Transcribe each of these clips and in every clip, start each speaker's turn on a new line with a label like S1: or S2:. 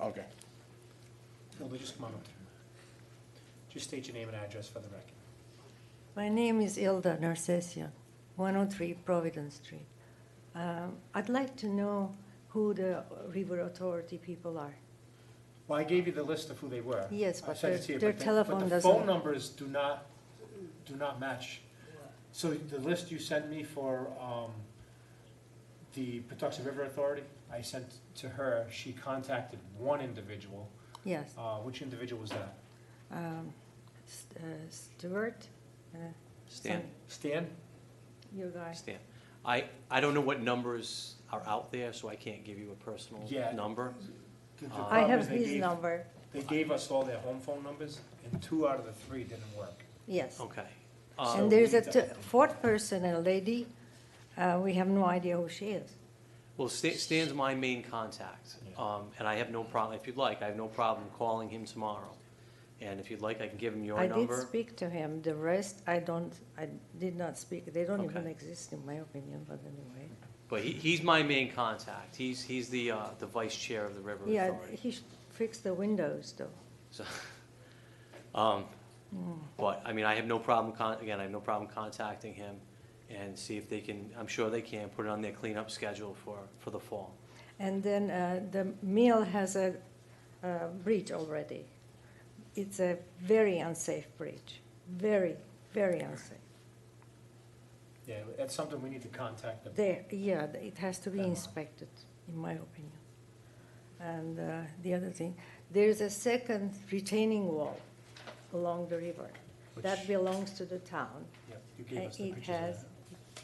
S1: Okay.
S2: No, they just come on up. Just state your name and address for the record.
S3: My name is Ilda Narcessian, 103 Providence Street. Um, I'd like to know who the River Authority people are.
S2: Well, I gave you the list of who they were.
S3: Yes,
S2: I
S3: but
S2: sent it
S3: their-
S2: to you,
S3: their
S2: but the-
S3: telephone
S2: But the
S3: doesn't-
S2: phone numbers do not, do not match. So the list you sent me for um, the Patuxent River Authority, I sent to her, she contacted one individual.
S3: Yes,
S2: Uh, Which individual was that?
S3: um, S- uh, Stuart? uh,
S4: Stan,
S2: Stan?
S3: some- Your guy?
S4: Stan. I, I don't know what numbers are out there, so I can't give you a personal
S2: Yeah.
S4: number.
S2: The- the
S4: I
S3: I
S2: problem is
S3: have
S2: they
S3: his
S2: gave-
S3: number,
S2: They gave us all their home phone numbers, and two out of the three didn't work.
S3: yes.
S4: Okay.
S3: And
S2: Uh,
S4: Um,
S3: there's a
S2: we-
S3: t- fourth person, a lady, uh, we have no idea who she is.
S4: Well, Stan- Stan's my main contact,
S2: Yeah.
S4: um, and I have no problem, if you'd like, I have no problem calling him tomorrow. And if you'd like, I can give him your
S3: I did
S4: number.
S3: speak to him, the rest, I don't, I did not speak, they don't even
S4: Okay.
S3: exist in my opinion, but anyway.
S4: But he, he's my main contact. He's, he's the, uh, the vice chair of the River
S3: Yeah,
S4: Authority.
S3: he should fix the windows though.
S4: So, um, But, I mean, I have no problem, con- again, I have no problem contacting him and see if they can, I'm sure they can, put it on their cleanup schedule for, for the fall.
S3: And then uh, the mill has a uh, bridge already. It's a very unsafe bridge, very, very unsafe.
S2: Yeah, that's something we need to contact them.
S3: There, yeah, th- it has to be inspected, in my opinion. And uh, the other thing, there's a second retaining wall along the river. That
S2: Which-
S3: belongs to the town.
S2: Yep, You gave
S3: Uh,
S2: us the
S3: it
S2: pictures of that.
S3: has-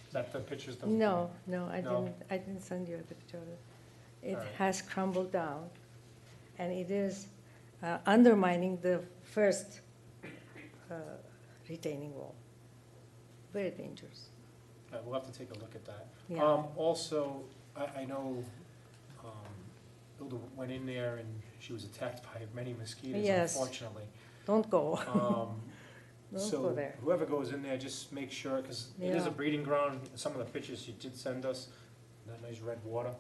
S2: Is that the pictures? that-
S3: No, no, I
S2: No?
S3: didn't, I didn't send you a picture of it. It
S2: All right.
S3: has crumbled down, and it is uh, undermining the first uh, retaining wall. Very dangerous.
S2: Uh, We'll have to take a look at that.
S3: Yeah.
S2: Um, also, I, I know, um, Hilda went in there and she was attacked by many mosquitoes,
S3: Yes.
S2: unfortunately.
S3: Don't go,
S2: Um,
S3: don't go
S2: so
S3: there.
S2: whoever goes in there, just make sure, because it is
S3: Yeah.
S2: a breeding ground. Some of the pictures you did send us, that nice red water,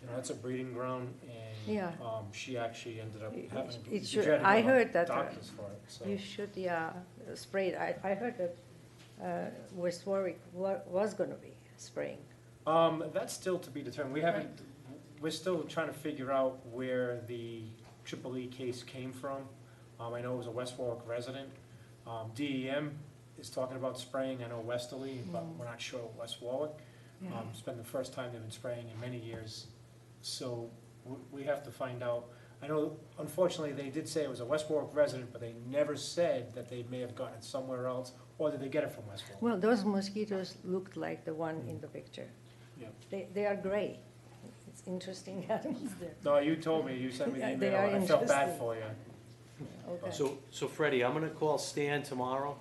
S2: you know, that's a breeding ground and,
S3: Yeah.
S2: um, she actually ended up
S3: It-
S2: having. she
S3: it should-
S2: had to go
S3: I
S2: to
S3: heard that, uh,
S2: Doctors for it, so.
S3: You should, yeah, spray it. I, I heard that uh, West Warwick wa- was gonna be spraying.
S2: Um, that's still to be determined. We haven't, we're still trying to figure out where the triple E case came from. Um, I know it was a West Warwick resident. Um, DEM is talking about spraying, I know Westerly, but
S3: Mm-hmm.
S2: we're not sure West Warwick. Um, it's been the first time they've been spraying in many years, so w- we have to find out. I know, unfortunately, they did say it was a West Warwick resident, but they never said that they may have gotten it somewhere else, or did they get it from West Warwick?
S3: Well, those mosquitoes looked like the one in the picture.
S2: Mm. Yeah.
S3: They, they are gray. It's interesting animals there.
S2: No, you told me, you sent me the
S3: They
S2: email,
S3: are
S2: and I felt bad
S3: interesting.
S2: for you.
S3: Okay.
S4: So, so Freddie, I'm gonna call Stan tomorrow,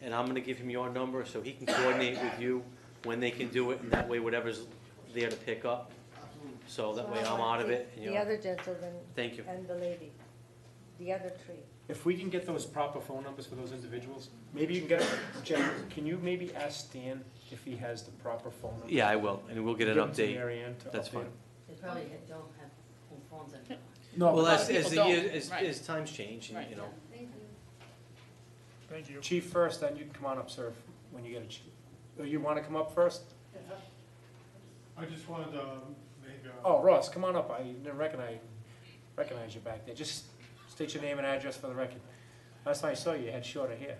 S4: and I'm gonna give him your number, so he can coordinate with you when they can do it, and that way whatever's there to pick up. So that way
S3: So I
S4: I'm
S3: want
S4: out of
S3: the-
S4: it, and
S3: The
S4: you're,
S3: other gentleman
S4: thank you.
S3: and the lady, the other three.
S2: If we can get those proper phone numbers for those individuals, maybe you can get, Jen, can you maybe ask Stan if he has the proper phone number?
S4: Yeah, I will, and we'll get an
S2: Give it to
S4: update.
S2: Mary Ann to
S4: That's
S2: update
S4: fine.
S2: him.
S5: They probably don't have home phones anymore.
S2: No,
S4: Well,
S2: but
S4: as,
S5: lot of
S4: as the
S5: people
S4: year,
S5: don't,
S4: as,
S5: right.
S4: as times change, and, you know,
S6: Thank you.
S2: chief first, then you can come on up, sir, when you get a chief. Oh, You wanna come up first?
S6: I just wanted to um, make a.
S2: Oh, Ross, come on up, I didn't recognize, recognize you back there, just state your name and address for the record. Last time I saw you, you had shorter hair.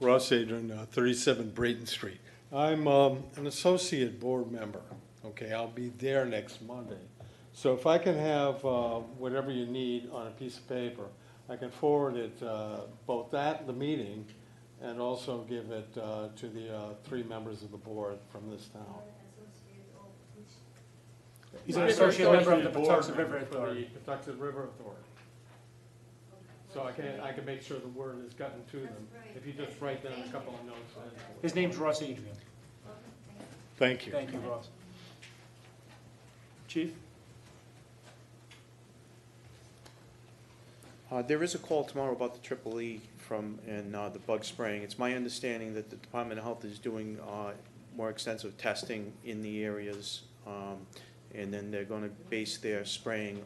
S7: Ross Adrian, uh, 37 Brayton Street. I'm um, an associate board member, okay? I'll be there next Monday. So if I can have uh, whatever you need on a piece of paper, I can forward it, uh, both at the meeting and also give it uh, to the uh, three members of the board from this town.
S2: He's an associate member of the Patuxent
S7: Board
S2: River
S7: member for the
S2: Authority.
S7: Patuxent River Authority. So I can, I can make sure the word has gotten to them, if you just write down a couple of notes. and-
S2: His name's Ross Adrian,
S7: Thank you.
S2: thank you, Ross. Chief?
S8: Uh, There is a call tomorrow about the triple E from, and uh, the bug spraying. It's my understanding that the Department of Health is doing uh, more extensive testing in the areas, um, and then they're going to base their spraying